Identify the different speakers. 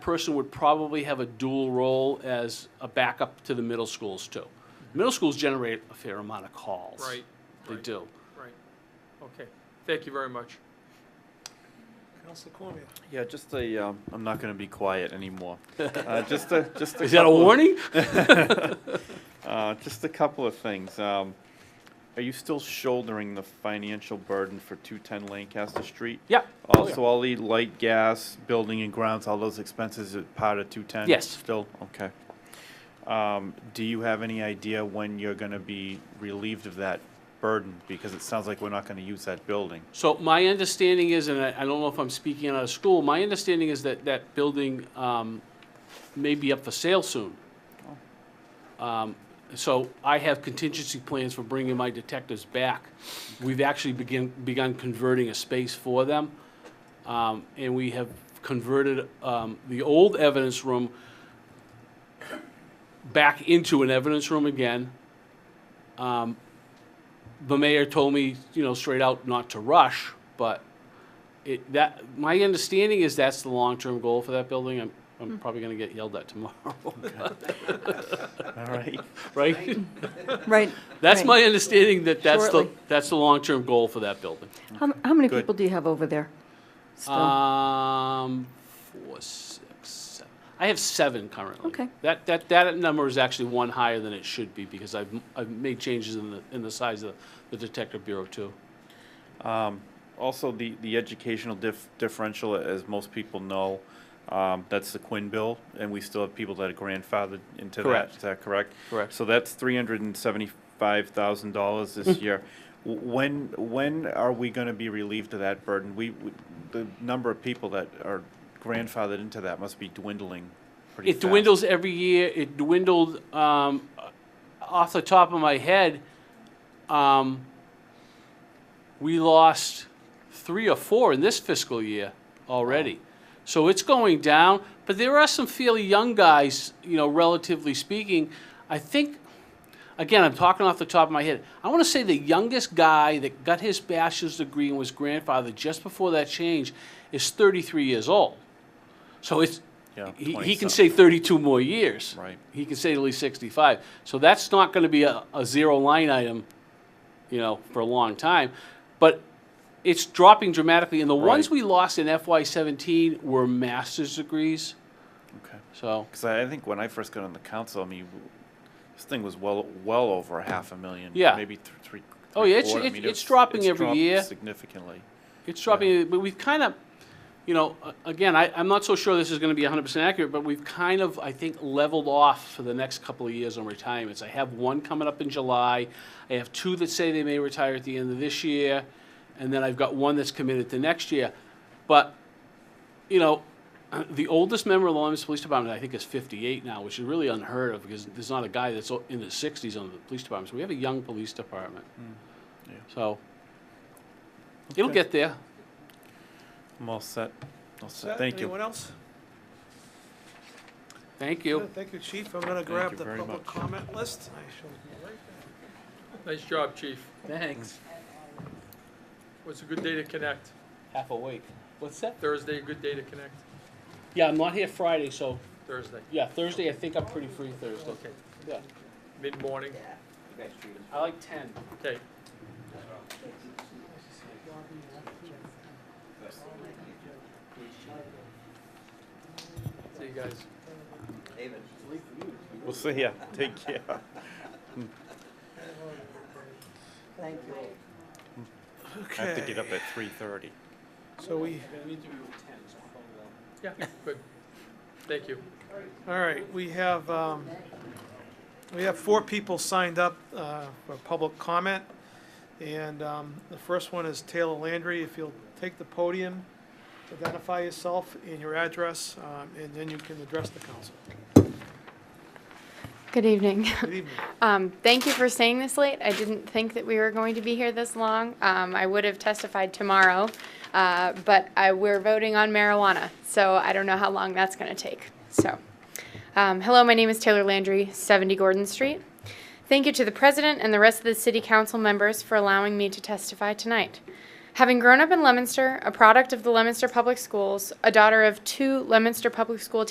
Speaker 1: person would probably have a dual role as a backup to the middle schools too. Middle schools generate a fair amount of calls.
Speaker 2: Right.
Speaker 1: They
Speaker 2: right,
Speaker 1: do.
Speaker 2: Right. Okay. Thank you very much.
Speaker 3: Council Cormier.
Speaker 4: Yeah, just a, um, I'm not gonna be quiet anymore. Uh, just a, just a.
Speaker 1: Is that a
Speaker 4: couple of-
Speaker 1: warning?
Speaker 4: Uh, just a couple of things. Um, are you still shouldering the financial burden for two ten Lancaster Street?
Speaker 1: Yeah. Oh, yeah.
Speaker 4: Also, all the light, gas, building and grounds, all those expenses are part of two ten?
Speaker 1: Yes.
Speaker 4: Still, okay. Um, do you have any idea when you're gonna be relieved of that burden? Because it sounds like we're not gonna use that building.
Speaker 1: So my understanding is, and I, I don't know if I'm speaking out of school, my understanding is that that building, um, may be up for sale soon. Um, so I have contingency plans for bringing my detectives back. We've actually begin, begun converting a space for them. Um, and we have converted, um, the old evidence room back into an evidence room again. Um, the mayor told me, you know, straight out not to rush, but it, that, my understanding is that's the long-term goal for that building. I'm,
Speaker 5: Hmm.
Speaker 1: I'm probably gonna get yelled at tomorrow,
Speaker 4: All right.
Speaker 1: right?
Speaker 5: Right.
Speaker 1: That's
Speaker 5: right.
Speaker 1: my understanding that that's the,
Speaker 5: Shortly.
Speaker 1: that's the long-term goal for that building.
Speaker 5: How, how many
Speaker 4: Good.
Speaker 5: people do you have over there? still?
Speaker 1: Uh, Um, four, six, seven. I have seven currently.
Speaker 5: Okay.
Speaker 1: That, that, that number is actually one higher than it should be because I've, I've made changes in the, in the size of the detective bureau too.
Speaker 4: Um, also, the, the educational dif- differential, as most people know, um, that's the Quinn bill, and we still have people that are grandfathered into
Speaker 1: Correct.
Speaker 4: that. Is that correct?
Speaker 1: Correct.
Speaker 4: So that's three hundred and seventy-five thousand dollars
Speaker 1: Mm-hmm.
Speaker 4: this year. W- When when are we going to be relieved of that burden? We, we the number of people that are grandfathered into that must be dwindling. Pretty
Speaker 1: It
Speaker 4: fast.
Speaker 1: dwindles every year. It dwindled, um, off the top of my head, um, we lost three or four in this fiscal year already. So it's going down, but there are some fairly young guys, you know, relatively speaking. I think, again, I'm talking off the top of my head. I want to say the youngest guy that got his bachelor's degree and was grandfathered just before that change is 33 years old. So it's,
Speaker 4: Yeah,
Speaker 1: he, he
Speaker 4: 20
Speaker 1: can
Speaker 4: something.
Speaker 1: say 32 more years.
Speaker 4: Right.
Speaker 1: He can say at least 65. So that's not going to be a, a zero line item, you know, for a long time. But it's dropping dramatically. And the ones
Speaker 4: Right.
Speaker 1: we lost in FY17 were master's degrees.
Speaker 4: Okay.
Speaker 1: So
Speaker 4: Because I, I think when I first got on the council, I mean, w- this thing was well well over a half a million.
Speaker 1: Yeah.
Speaker 4: Maybe th- three.
Speaker 1: Oh, yeah, it's-
Speaker 4: three-quarter. I
Speaker 1: it's-
Speaker 4: mean,
Speaker 1: it's dropping every
Speaker 4: dropped
Speaker 1: year.
Speaker 4: significantly.
Speaker 1: it's dropping. But we've kind of, you know, a- again, I, I'm not so sure this is going to be 100% accurate, but we've kind of, I think, leveled off for the next couple of years on retirements. I have one coming up in July. I have two that say they may retire at the end of this year. And then I've got one that's committed to next year. But you know, the oldest member of the Lawrence Police Department, I think, is 58 now, which is really unheard of because there's not a guy that's o- in his 60s on the police department. So we have a young police department.
Speaker 4: Mm. yeah.
Speaker 1: So it'll
Speaker 4: Okay.
Speaker 1: get there.
Speaker 4: I'm all set. All
Speaker 3: Set.
Speaker 4: set. Thank you.
Speaker 3: Anyone else?
Speaker 1: Thank you.
Speaker 3: Good. Thank you, Chief. I'm gonna grab
Speaker 4: you
Speaker 3: the
Speaker 4: very
Speaker 3: public
Speaker 4: much.
Speaker 3: comment list. I shall go right back.
Speaker 2: Nice job, Chief.
Speaker 1: Thanks.
Speaker 2: It was a good day to connect.
Speaker 1: Half awake. What's that?
Speaker 2: Thursday, a good day to connect.
Speaker 1: Yeah, I'm not here Friday, so
Speaker 2: Thursday.
Speaker 1: yeah, Thursday, I think I'm pretty free Thursday.
Speaker 2: Okay.
Speaker 1: Yeah.
Speaker 2: Mid morning.
Speaker 1: I like 10.
Speaker 2: Okay. See you guys.
Speaker 4: We'll see ya. Take care.
Speaker 5: Thank you.
Speaker 4: I have to get up at three thirty.
Speaker 3: So we,
Speaker 2: Yeah, good. Thank you.
Speaker 3: all right, we have, um, we have four people signed up, uh, for public comment. And, um, the first one is Taylor Landry. If you'll take the podium, identify yourself and your address, um, and then you can address the council.
Speaker 6: Good evening.
Speaker 3: Good evening.
Speaker 6: Um, Thank you for staying this late. I didn't think that we were going to be here this long. Um, I would have testified tomorrow, uh, but I- we're voting on marijuana, so I don't know how long that's going to take. So, um, hello, my name is Taylor Landry, 70 Gordon Street. Thank you to the president and the rest of the city council members for allowing me to testify tonight. Having grown up in Leominster, a product of the Leominster Public Schools, a daughter of two Leominster Public School